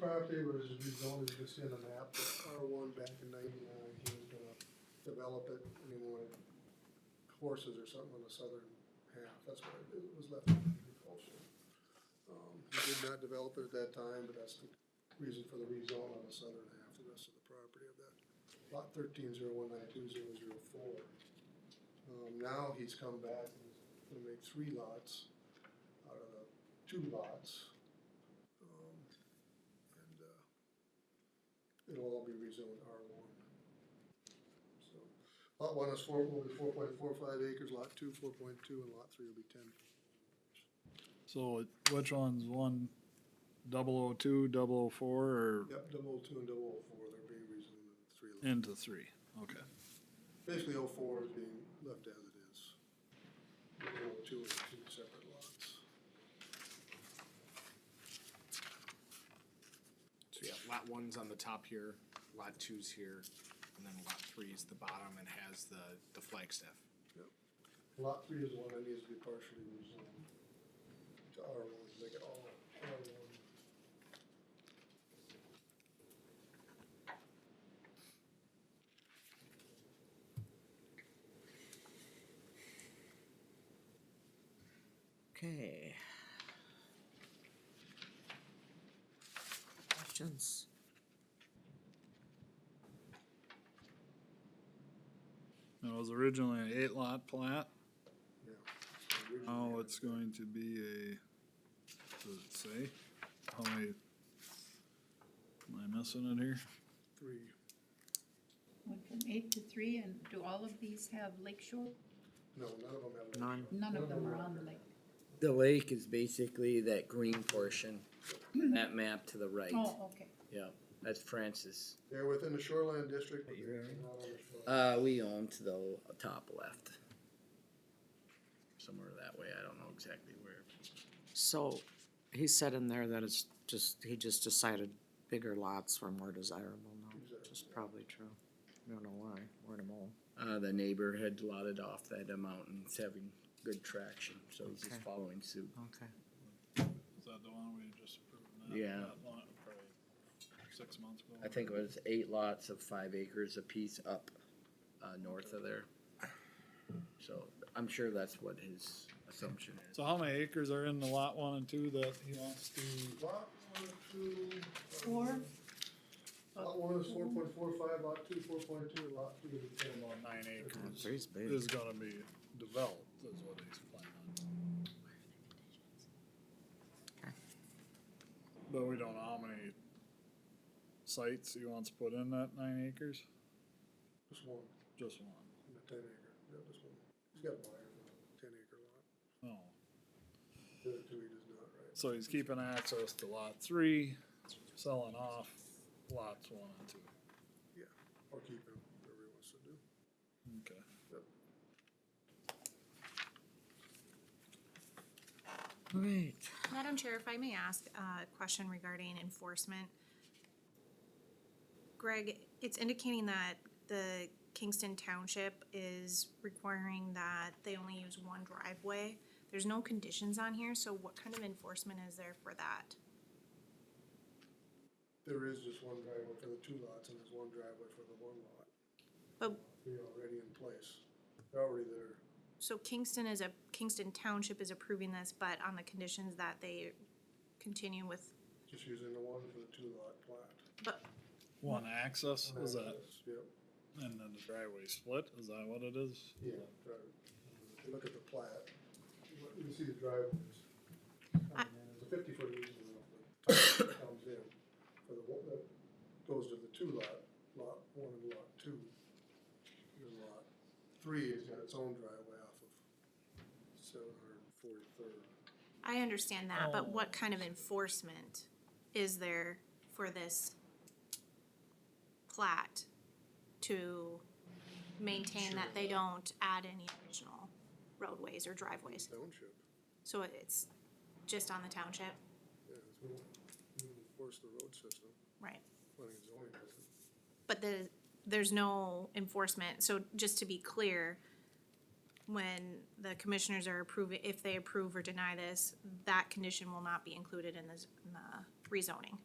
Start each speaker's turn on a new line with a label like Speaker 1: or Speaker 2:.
Speaker 1: property was rezoned just in an app, R one back in ninety-nine, he was gonna develop it, and he wanted horses or something on the southern half, that's why it was left agriculture. Um, he did not develop it at that time, but that's the reason for the rezone on the southern half, the rest of the property of that. Lot thirteen zero one nine two zero zero four. Um, now he's come back and he's gonna make three lots out of the two lots. Um, and, uh, it'll all be rezoned R one. So, lot one is four, will be four point four five acres, lot two, four point two, and lot three will be ten.
Speaker 2: So it- which one's one, double oh two, double oh four, or
Speaker 1: Yep, double oh two and double oh four, they're being rezoned in three lots.
Speaker 2: into three? Okay.
Speaker 1: Basically, oh four is being left as it is. Oh two is two separate lots.
Speaker 3: So yeah, lot one's on the top here, lot two's here, and then lot three is the bottom and has the, the flagstaff.
Speaker 1: Lot three is the one that needs to be partially rezoned to R one, make it all R one.
Speaker 4: Okay. Questions?
Speaker 2: It was originally an eight lot plat,
Speaker 1: Yeah.
Speaker 2: now it's going to be a, does it say? How many? Am I missing it here?
Speaker 1: Three.
Speaker 5: Went from eight to three, and do all of these have lake shore?
Speaker 1: No, none of them have.
Speaker 4: None.
Speaker 5: None of them are on the lake.
Speaker 6: The lake is basically that green portion, that map to the right.
Speaker 5: Oh, okay.
Speaker 6: Yeah, that's Francis.
Speaker 1: They're within the shoreline district, but
Speaker 6: You're
Speaker 1: they're
Speaker 6: right.
Speaker 1: not on the shoreline.
Speaker 6: Uh, we own to the top left. Somewhere that way, I don't know exactly where.
Speaker 4: So, he said in there that it's just, he just decided bigger lots were more desirable now, which is probably true. I don't know why, word of mouth.
Speaker 6: Uh, the neighbor had lotted off that amount and it's having good traction, so he's just
Speaker 4: Okay.
Speaker 6: following suit.
Speaker 4: Okay.
Speaker 2: Is that the one we just approved?
Speaker 6: that- Yeah.
Speaker 2: That lot, probably six months ago.
Speaker 6: I think it was eight lots of five acres apiece up, uh, north of there. So I'm sure that's what his assumption is.
Speaker 2: So how many acres are in the lot one and two that he wants to,
Speaker 1: Lot one, two. um,
Speaker 5: Four?
Speaker 1: Lot one is four point four five, lot two, four point two, and lot three is ten.
Speaker 2: about nine acres
Speaker 4: Three's big.
Speaker 2: is gonna be developed, is what he's planning on. But we don't know how many sites he wants to put in that nine acres,
Speaker 1: Just one,
Speaker 2: just one,
Speaker 1: and a ten acre, yeah, just one. He's got a buyer for a ten acre lot.
Speaker 2: no.
Speaker 1: The other two he does not, right?
Speaker 2: So he's keeping access to lot three, selling off lots one and two,
Speaker 1: Or keep him, whatever he wants to do.
Speaker 2: okay.
Speaker 4: Right.
Speaker 7: Madam Chair, if I may ask a question regarding enforcement. Greg, it's indicating that the Kingston Township is requiring that they only use one driveway. There's no conditions on here, so what kind of enforcement is there for that?
Speaker 1: There is just one driveway for the two lots, and there's one driveway for the one lot.
Speaker 7: But,
Speaker 1: They're already in place. They're already there.
Speaker 7: so Kingston is a, Kingston Township is approving this, but on the conditions that they continue with,
Speaker 1: Just using the one for the two lot plat.
Speaker 7: but,
Speaker 2: One access, is that,
Speaker 1: Yep,
Speaker 2: and then the driveway split, is that what it is?
Speaker 1: yeah. drive- If you look at the plat, you look- you see the driveways.
Speaker 7: I-
Speaker 1: And There's a fifty foot easement off the top that comes in for the one that goes to the two lot, lot one and lot two. And lot three has got its own driveway off of seven hundred and forty third.
Speaker 7: I understand that,
Speaker 2: Oh.
Speaker 7: but what kind of enforcement is there for this plat to maintain that they don't add any additional roadways or driveways?
Speaker 1: Township,
Speaker 7: So it's just on the township?
Speaker 1: yeah, it's more, more enforce the road system,
Speaker 7: Right.
Speaker 1: planning and zoning doesn't.
Speaker 7: But the, there's no enforcement, so just to be clear, when the commissioners are approving, if they approve or deny this, that condition will not be included in this, in the rezoning.